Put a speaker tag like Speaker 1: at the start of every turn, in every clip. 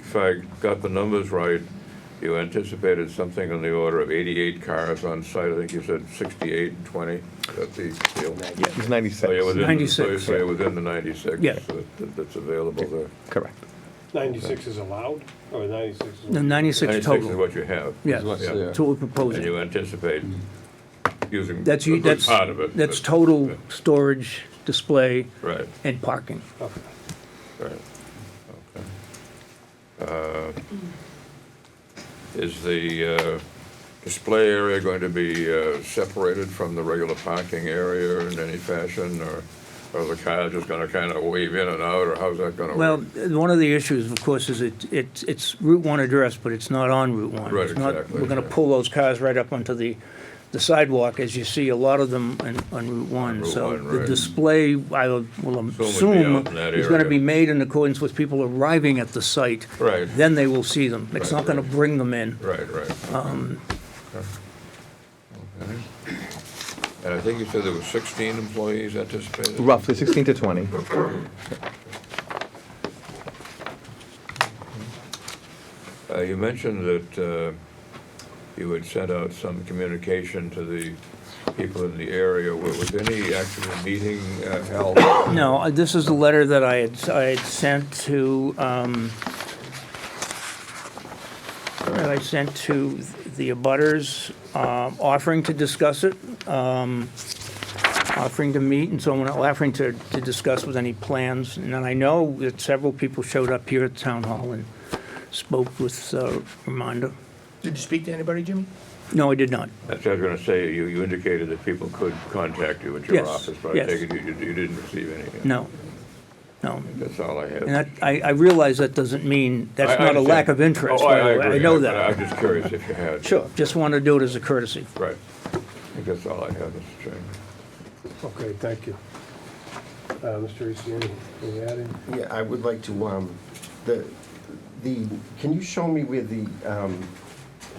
Speaker 1: if I got the numbers right, you anticipated something on the order of 88 cars on site. I think you said 68 and 20 at the deal.
Speaker 2: He's
Speaker 1: So you're
Speaker 2: 96.
Speaker 1: within- so you're-
Speaker 3: 96.
Speaker 1: So you're within the 96
Speaker 3: Yeah.
Speaker 1: that- that's available there.
Speaker 2: Correct.
Speaker 4: 96 is allowed, or 96 is?
Speaker 3: The 96
Speaker 1: 96 is
Speaker 3: total,
Speaker 1: what you have.
Speaker 3: yes,
Speaker 5: what's
Speaker 1: Yeah.
Speaker 5: there.
Speaker 3: that's what we're
Speaker 1: And
Speaker 3: proposing.
Speaker 1: you anticipate using a
Speaker 3: That's, you-
Speaker 1: good
Speaker 3: that's,
Speaker 1: part of it.
Speaker 3: that's
Speaker 1: but-
Speaker 3: total storage, display,
Speaker 1: Right,
Speaker 3: and parking.
Speaker 4: Okay.
Speaker 1: right. Okay. Uh, Is the uh, display area going to be uh, separated from the regular parking area in any fashion? Or or are the cars just going to kind of wave in and out, or how's that going to
Speaker 3: Well,
Speaker 1: work?
Speaker 3: uh, one of the issues, of course, is it, it's, it's Route 1 address, but it's not on Route 1.
Speaker 1: Right,
Speaker 3: It's not-
Speaker 1: exactly,
Speaker 3: We're gonna
Speaker 1: yeah.
Speaker 3: pull those cars right up onto the, the sidewalk, as you see a lot of them on, on Route 1.
Speaker 1: Route
Speaker 3: So
Speaker 1: 1,
Speaker 3: the
Speaker 1: right.
Speaker 3: display, I will
Speaker 1: be
Speaker 3: assume,
Speaker 1: out in that
Speaker 3: is gonna
Speaker 1: area.
Speaker 3: be made in accordance with people arriving at the site.
Speaker 1: Right.
Speaker 3: Then they will see them. It's
Speaker 1: Right,
Speaker 3: not gonna
Speaker 1: right.
Speaker 3: bring them in.
Speaker 1: Right, right. Okay. Okay. And I think you said there were 16 employees anticipated?
Speaker 2: Roughly 16 to 20.
Speaker 1: Uh, You mentioned that uh, you had sent out some communication to the people in the area. Wa- Was any actual meeting uh, held?
Speaker 3: No, I- this is the letter that I had, I had sent to, um, that I sent to the abutters, um, offering to discuss it, um, offering to meet and so on, offering to, to discuss with any plans. And then I know that several people showed up here at Town Hall and spoke with uh, Ramonda.
Speaker 6: Did you speak to anybody, Jimmy?
Speaker 3: No, I did not.
Speaker 1: That's what I was going to say. You you indicated that people could contact you at your
Speaker 3: Yes,
Speaker 1: office, but I
Speaker 3: yes.
Speaker 1: take it you you- you didn't receive any. uh,
Speaker 3: No, no.
Speaker 1: That's all I have.
Speaker 3: And that, I, I realize that doesn't mean,
Speaker 1: I-
Speaker 3: that's
Speaker 1: I
Speaker 3: not a lack of
Speaker 1: understand.
Speaker 3: interest,
Speaker 1: Oh,
Speaker 3: by the way. I
Speaker 1: agree.
Speaker 3: know
Speaker 1: But
Speaker 3: that.
Speaker 1: I'm just curious if you had.
Speaker 3: Sure, just want to do it as a courtesy.
Speaker 1: Right. I think that's all I have, Mr. Chairman.
Speaker 4: Okay, thank you. Uh, Mr. Eastian, can you add in?
Speaker 5: Yeah, I would like to, um, the, the, can you show me where the, um,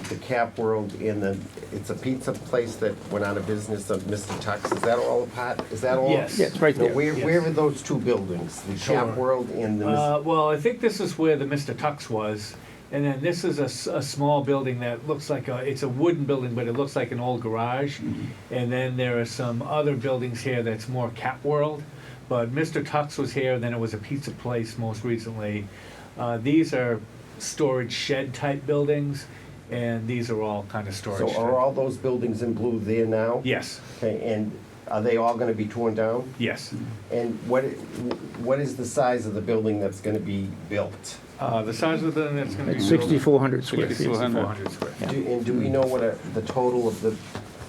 Speaker 5: the Cap World and the, it's a pizza place that went out of business of Mr. Tux, is that all apart, is that all?
Speaker 7: Yes. Yeah,
Speaker 3: it's right
Speaker 5: Now,
Speaker 3: there.
Speaker 5: Where,
Speaker 7: Yes.
Speaker 5: where are those two buildings, the
Speaker 7: Sure.
Speaker 5: Cap World and the, Mis-
Speaker 7: Uh, well, I think this is where the Mr. Tux was, and then this is a, s- a small building that looks like a, it's a wooden building, but it looks like an old garage.
Speaker 5: Mm-hmm.
Speaker 7: And then there are some other buildings here that's more Cat World, but Mr. Tux was here, then it was a pizza place most recently. Uh, these are storage shed type buildings, and these are all kind of storage.
Speaker 5: so are
Speaker 7: type.
Speaker 5: all those buildings in blue there now?
Speaker 7: Yes,
Speaker 5: Okay, and are they all gonna be torn down?
Speaker 7: yes.
Speaker 5: And what, what is the size of the building that's gonna be built?
Speaker 7: Uh, the size of the building that's gonna be. built-
Speaker 3: 6,400 square feet.
Speaker 7: 6,400 square feet.
Speaker 5: Do- And do we know what are the total of the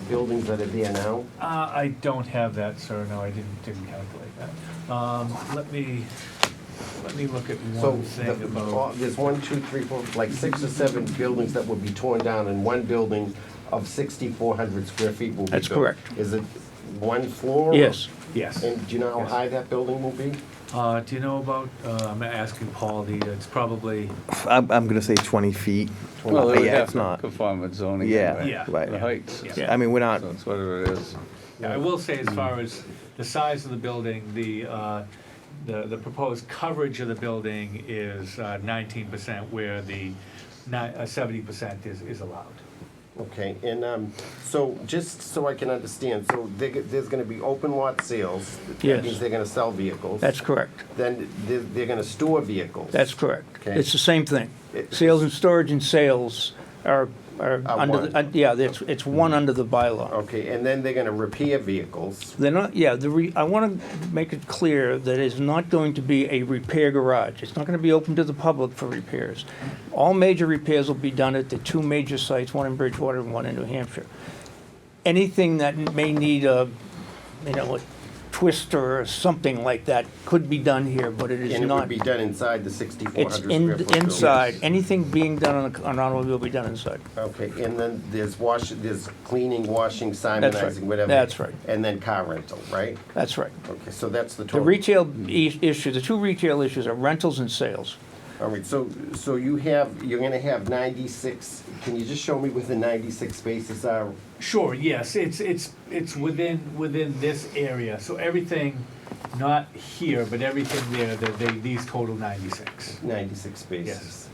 Speaker 5: buildings that are there now?
Speaker 7: Uh, I don't have that, sir, no, I didn't, didn't calculate that. Um, let me, let me look at
Speaker 5: So
Speaker 7: one thing
Speaker 5: the- all-
Speaker 7: about,
Speaker 5: there's one, two, three, four, like six or seven buildings that would be torn down and one building of 6,400 square feet will be
Speaker 3: That's
Speaker 5: built.
Speaker 3: correct.
Speaker 5: Is it one floor?
Speaker 3: Yes.
Speaker 7: yes.
Speaker 5: And do you know how
Speaker 7: Yes.
Speaker 5: high that building will be?
Speaker 7: Uh, do you know about, uh, I'm asking Paul, the, it's probably,
Speaker 2: I'm, I'm going to say 20 feet.
Speaker 5: Well,
Speaker 2: Uh,
Speaker 5: they
Speaker 2: yeah, it's not.
Speaker 6: Conform with zoning.
Speaker 2: Yeah,
Speaker 6: anyway.
Speaker 7: Yeah.
Speaker 2: right.
Speaker 6: The heights,
Speaker 7: Yeah.
Speaker 2: I mean, we're not,
Speaker 6: so that's what it is.
Speaker 7: I will say as far as the size of the building, the, uh, the, the proposed coverage of the building is uh, nineteen percent where the ni- uh, seventy percent is, is allowed.
Speaker 5: Okay, and um, so just so I can understand, so there g- there's going to be open lot sales.
Speaker 3: Yes.
Speaker 5: That means they're going to sell vehicles.
Speaker 3: That's correct.
Speaker 5: Then they're, they're going to store vehicles.
Speaker 3: That's correct.
Speaker 5: Okay.
Speaker 3: It's the same thing.
Speaker 5: It-
Speaker 3: Sales and storage and sales are, are
Speaker 5: Are
Speaker 3: under, the-
Speaker 5: one.
Speaker 3: uh, yeah, it's, it's one under the bylaw.
Speaker 5: Okay, and then they're going to repair vehicles.
Speaker 3: They're not, yeah, the, re- I want to make it clear that it's not going to be a repair garage. It's not going to be open to the public for repairs. All major repairs will be done at the two major sites, one in Bridgewater and one in New Hampshire. Anything that may need a, you know, a twister or something like that could be done here, but it is
Speaker 5: And it
Speaker 3: not.
Speaker 5: would be done inside the 6,400
Speaker 3: It's
Speaker 5: square
Speaker 3: in,
Speaker 5: foot building.
Speaker 3: inside, anything being done on a- on an automobile will be done inside.
Speaker 5: Okay, and then there's wash, there's cleaning, washing,
Speaker 3: right.
Speaker 5: simonizing, whatever.
Speaker 3: That's right.
Speaker 5: And then car rental, right?
Speaker 3: That's right.
Speaker 5: Okay, so that's the
Speaker 3: The
Speaker 5: total.
Speaker 3: retail i- issue, the two retail issues are rentals and sales.
Speaker 5: All right, so, so you have, you're gonna have 96, can you just show me where the 96 spaces are?
Speaker 7: Sure, yes, it's, it's, it's within, within this area, so everything, not here, but everything there, they, they, these total ninety-six.
Speaker 5: 96 spaces.
Speaker 7: Yes.